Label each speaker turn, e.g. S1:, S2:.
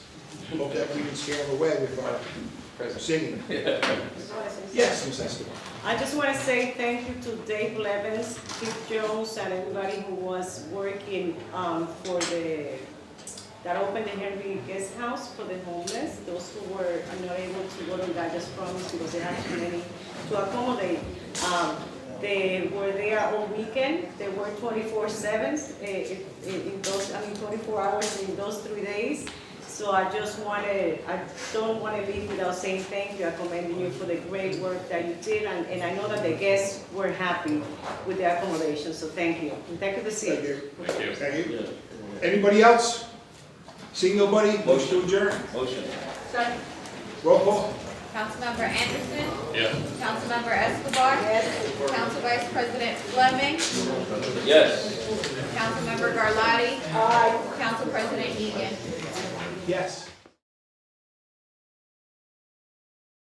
S1: hope that we can scare them away with our singing. Yes, Ms. Escobar.
S2: I just want to say thank you to Dave Levens, Keith Jones, and everybody who was working um, for the, that opened the Henry Guest House for the homeless, those who were not able to go to Guy's Promise because they had too many to accommodate. Um, They were there all weekend, they were twenty-four seven, eh, in those, I mean, twenty-four hours in those three days. So I just wanted, I don't want to leave without saying thank you, I commend you for the great work that you did, and, and I know that the guests were happy with the accommodation, so thank you. And thank you the
S1: Thank
S2: city.
S1: you.
S3: Thank you.
S1: Thank you. Anybody else? Seeing nobody, motion to adjourn.
S4: Motion.
S5: Second.
S1: Roll call.
S5: Councilmember Anderson.
S3: Yeah.
S5: Councilmember Escobar. Council Vice President Fleming.
S4: Yes.
S5: Councilmember Garlotti. Council President Egan.
S1: Yes.